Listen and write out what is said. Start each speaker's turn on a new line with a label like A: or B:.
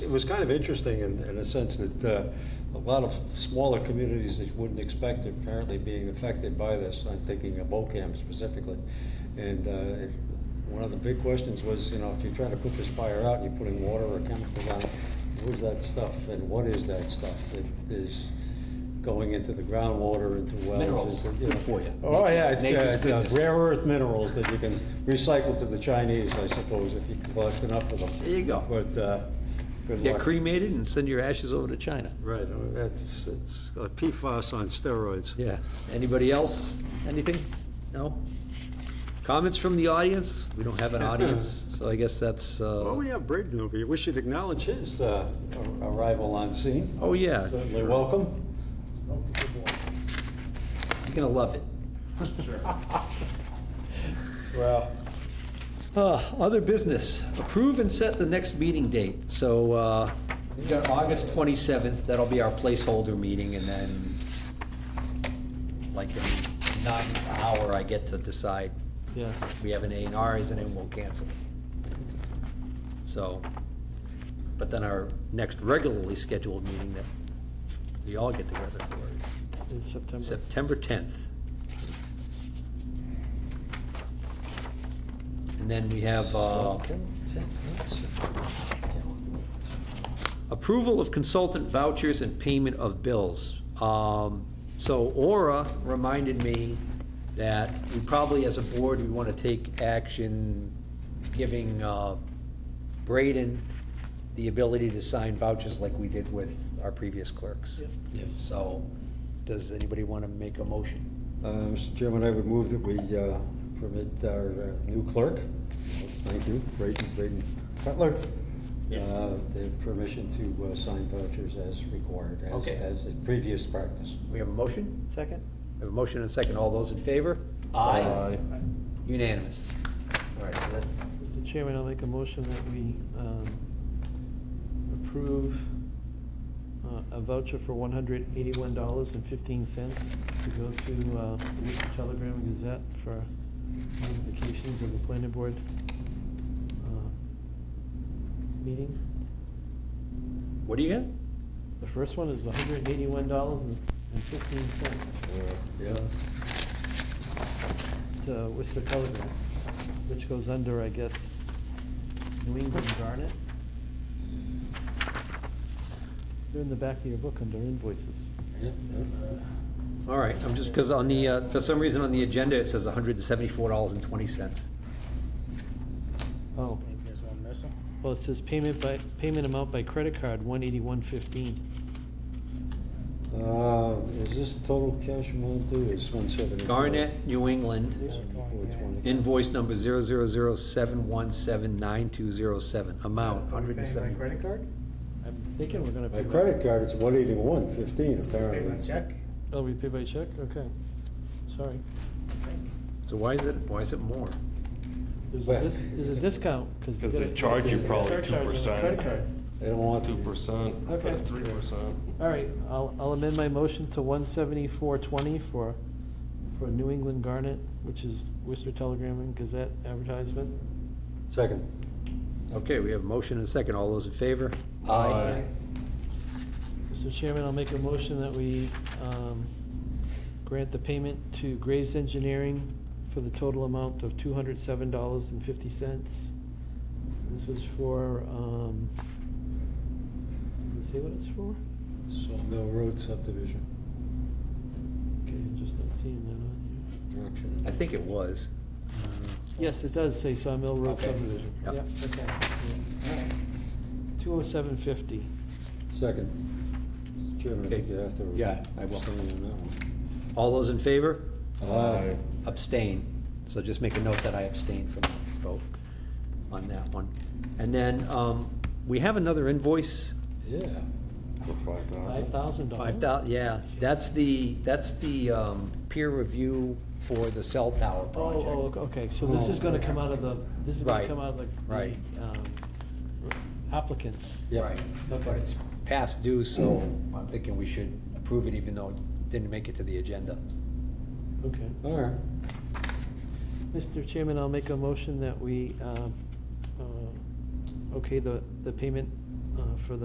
A: was kind of interesting in, in a sense that uh, a lot of smaller communities that you wouldn't expect are apparently being affected by this. I'm thinking of Ocam specifically. And uh, it- one of the big questions was, you know, if you're trying to put this fire out, and you're putting water or chemicals on, it, where's that stuff and what is that stuff that is going into the groundwater, into wells?
B: Minerals,
A: into,
B: good for you.
A: Oh, yeah, it's,
B: Nature's
A: uh, it's, uh,
B: goodness.
A: rare earth minerals that you can recycle to the Chinese, I suppose, if you collect enough of them.
B: There you go.
A: But, uh, good luck.
B: Get cremated and send your ashes over to China.
A: Right, uh, that's, it's uh, PFAS on steroids.
B: Yeah. Anybody else? Anything? No? Comments from the audience? We don't have an audience, so I guess that's,
A: Well,
B: uh,
A: we have Braden over here. We should acknowledge his uh, ar- arrival on scene.
B: oh, yeah.
A: Certainly welcome.
B: You're gonna love it.
A: Well,
B: Uh, Other business, approve and set the next meeting date. So uh, we got August 27th, that'll be our placeholder meeting, and then like in not an hour, I get to decide.
A: Yeah.
B: We have an A and R, isn't it, and we'll cancel it. So, but then our next regularly scheduled meeting that we all get together for
C: In September.
B: is September 10th. And then we have uh, approval of consultant vouchers and payment of bills. Um, So Aura reminded me that we probably, as a board, we want to take action giving uh, Braden the ability to sign vouchers like we did with our previous clerks. So, does anybody want to make a motion?
A: uh, Mr. Chairman, I would move that we uh, permit our uh, new clerk, thank you, Braden, Braden Cutler, uh, the permission to uh, sign vouchers as required, as,
B: Okay.
A: as the previous practice.
B: We have a motion?
C: Second?
B: We have a motion and a second. All those in favor?
A: Aye.
B: Unanimous. All right, so that,
C: Mr. Chairman, I'll make a motion that we um, approve uh, a voucher for one hundred eighty-one dollars and fifteen cents to go to uh, the Worcester Telegram and Gazette for notifications of the planning board uh, meeting.
B: what do you got?
C: The first one is hundred and eighty-one dollars and fifteen cents
A: Uh, Yeah.
C: to Worcester Telegram, uh, which goes under, I guess, New England Garnet. They're in the back of your book under invoices.
A: Yep, yep.
B: All right, I'm just, because on the, uh, for some reason on the agenda, it says $174.20.
C: Oh,
D: Maybe there's one missing.
C: well, it says payment by, payment amount by credit card, one eighty-one fifteen.
A: Uh, Is this total cash amount due, it's one seventy-four?
B: Garnet, New England, invoice number 00071792007, amount
D: Are we paying by
B: 170.
D: credit card?
C: I'm thinking we're gonna pay.
A: My
C: by-
A: credit card is one eighty-one fifteen
D: Pay by
A: apparently.
D: check,
C: Oh, we pay by check? Okay, sorry.
D: I think.
B: So why is it, why is it more?
C: There's
A: But-
C: a dis, there's a discount, cause. you
E: Because they
C: gotta-
E: charge you
C: there's a
E: probably
C: surcharge on the
E: 2%.
C: Credit card.
A: They don't want
E: Two
A: to.
E: percent,
C: Okay.
E: three percent.
C: All right, I'll, I'll amend my motion to one seventy-four twenty for, for New England Garnet, which is Worcester Telegram and Gazette advertisement.
A: Second.
B: Okay, we have a motion and a second. All those in favor?
E: Aye.
C: Mr. Chairman, I'll make a motion that we, um, grant the payment to Graves Engineering for the total amount of two hundred seven dollars and fifty cents. This was for, um, let's see what it's for?
A: Sawmill Road subdivision.
C: Okay, just not seeing that on here.
A: Direction.
B: I think it was.
C: Yes, it does say Sawmill Road
B: Okay.
C: subdivision.
B: Yep.
C: Yep, okay. Two oh seven fifty.
A: Second. Mr. Chairman, I think
B: Okay.
A: you have to.
B: Yeah, I will.
A: abstain on
B: All those in favor?
A: that one.
B: Abstain. So just make a note that I abstained from the vote on that one. And then um, we have another invoice,
A: Yeah.
E: For five
C: Five
E: thousand.
C: thousand dollars?
B: five thousand, yeah. That's the, that's the um, peer review for the cell tower
C: Oh, oh,
B: project.
C: okay, so this is gonna come out of the, this is gonna
B: Right,
C: come out of the-
B: right.
C: the um, applicants.
A: Yeah.
B: Right. But it's past due, so
C: Oh.
B: I'm thinking we should approve it even though it didn't make it to the agenda.
C: Okay.
A: All right.
C: Mr. Chairman, I'll make a motion that we, um, uh, okay, the, the payment uh, for the